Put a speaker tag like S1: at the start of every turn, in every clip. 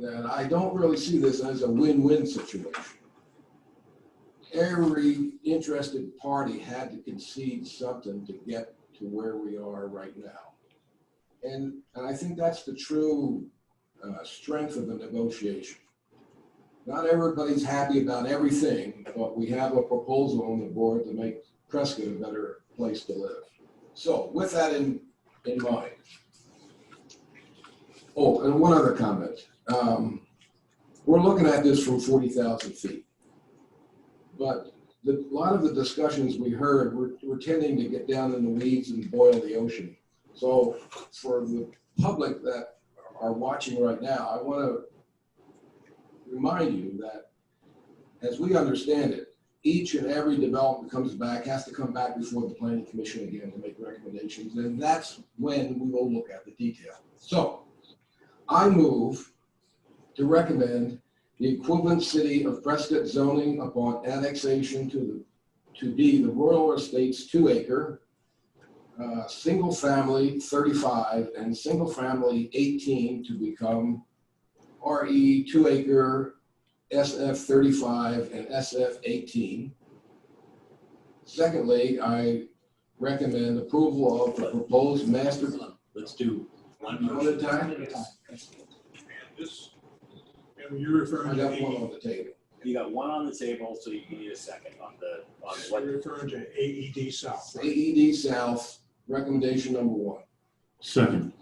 S1: that I don't really see this as a win-win situation. Every interested party had to concede something to get to where we are right now. And, and I think that's the true uh, strength of the negotiation. Not everybody's happy about everything, but we have a proposal on the board to make Prescott a better place to live. So with that in, in mind. Oh, and one other comment. Um, We're looking at this from 40,000 feet. But the, a lot of the discussions we heard, we're, we're tending to get down in the weeds and boil the ocean. So for the public that are watching right now, I want to remind you that as we understand it, each and every development comes back, has to come back before the planning commission again to make recommendations, and that's when we will look at the detail. So I move to recommend the equivalent city of Prescott zoning upon annexation to the, to be the Royal Estates two acre, uh, single family thirty-five and single family eighteen to become RE two acre SF thirty-five and SF eighteen. Secondly, I recommend approval of the proposed master.
S2: Hold on, Let's do one
S1: One at a
S2: motion.
S1: time?
S3: And this, and you're
S1: I
S3: referring to, E
S1: got one
S3: AE
S1: on the table.
S2: You got one on the table, so you need a second on the, on what,
S3: you're referring to AED South. right?
S1: AED E South, recommendation number one.
S4: Second,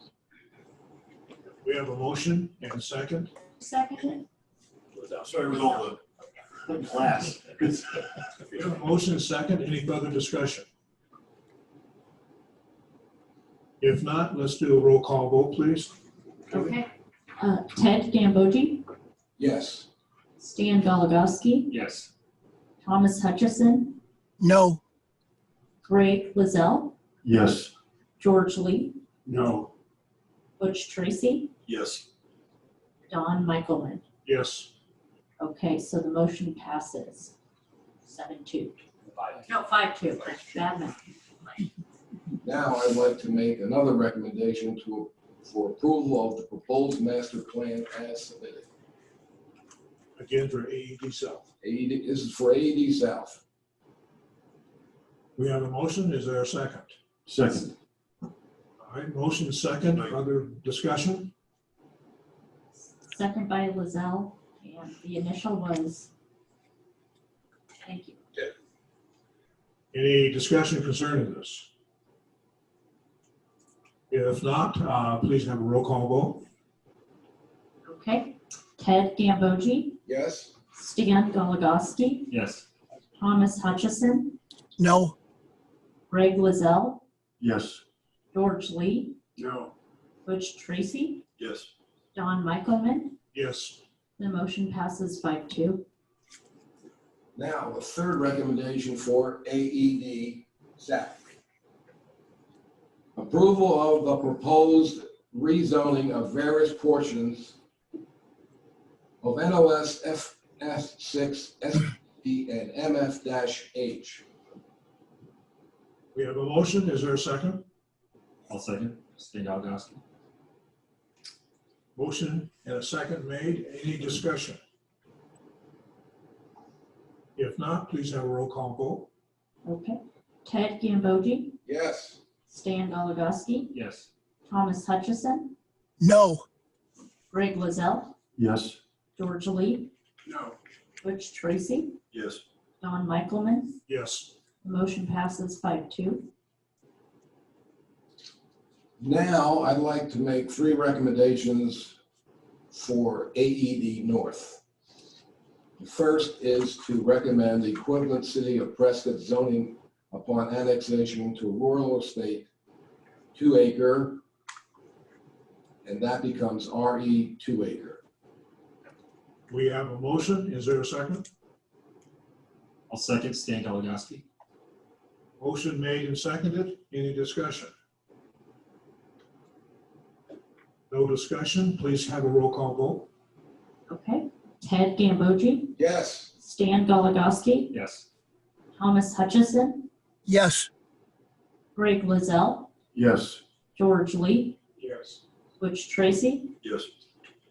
S3: We have a motion and a second.
S5: Second,
S2: was that?
S6: Sorry, it was all the class.
S3: We have a motion and a second. Any further discussion? If not, let's do a roll call vote, please.
S5: okay. Uh, Ted Gambogi,
S1: Yes.
S5: Stan Galagowski,
S6: Yes.
S5: Thomas Hutchison,
S7: No,
S5: Greg Lizelle,
S4: yes.
S5: George Lee,
S4: No.
S5: Butch Tracy,
S6: Yes.
S5: Don Michaelman.
S3: Yes.
S5: Okay, so the motion passes. Seven two.
S2: Five.
S5: No, five two. Bad math.
S1: Now I'd like to make another recommendation to, for approval of the proposed master plan as submitted.
S3: Again, for AED South.
S1: AED, E this is for AED South.
S3: We have a motion. Is there a second?
S4: Second,
S3: All right, motion and second. Other discussion?
S5: Second by Lizelle, and the initial was. Thank you.
S3: Any discussion concerning this? If not, uh, please have a roll call vote.
S5: Okay. Ted Gambogi,
S1: Yes?
S5: Stan Galagowski,
S6: Yes.
S5: Thomas Hutchison,
S7: no,
S5: Greg Lizelle,
S4: yes.
S5: George Lee,
S6: No.
S5: Butch Tracy,
S6: Yes.
S5: Don Michaelman,
S3: Yes.
S5: the motion passes five two.
S1: Now, the third recommendation for E AED South. Approval of the proposed rezoning of various portions of NOS FS six, SD, and MF H.
S3: We have a motion. Is there a second?
S6: I'll second. Stan Galagowski.
S3: Motion and a second made. Any discussion? If not, please have a roll call vote.
S5: Okay. Ted Gambogi,
S1: Yes.
S5: Stan Galagowski,
S6: Yes.
S5: Thomas Hutchison,
S7: no,
S5: Greg Lozell,
S4: Yes,
S5: George Lee,
S6: No.
S5: Butch Tracy,
S6: Yes.
S5: Don Michaelman,
S3: Yes.
S5: the motion passes five two.
S1: Now, I'd like to make three recommendations for AED North. The First is to recommend the equivalent city of Prescott zoning upon annexation to rural estate, two acre, and that becomes RE two acre.
S3: We have a motion. Is there a second?
S6: I'll second Stan Galagowski.
S3: Motion made and seconded. Any discussion? No discussion. Please have a roll call vote.
S5: Okay. Ted Gambogi,
S1: Yes.
S5: Stan Galagowski,
S6: Yes.
S5: Thomas Hutchison,
S7: yes,
S5: Greg Lozell,
S4: yes,
S5: George Lee,
S3: Yes.
S5: Butch Tracy,
S6: Yes.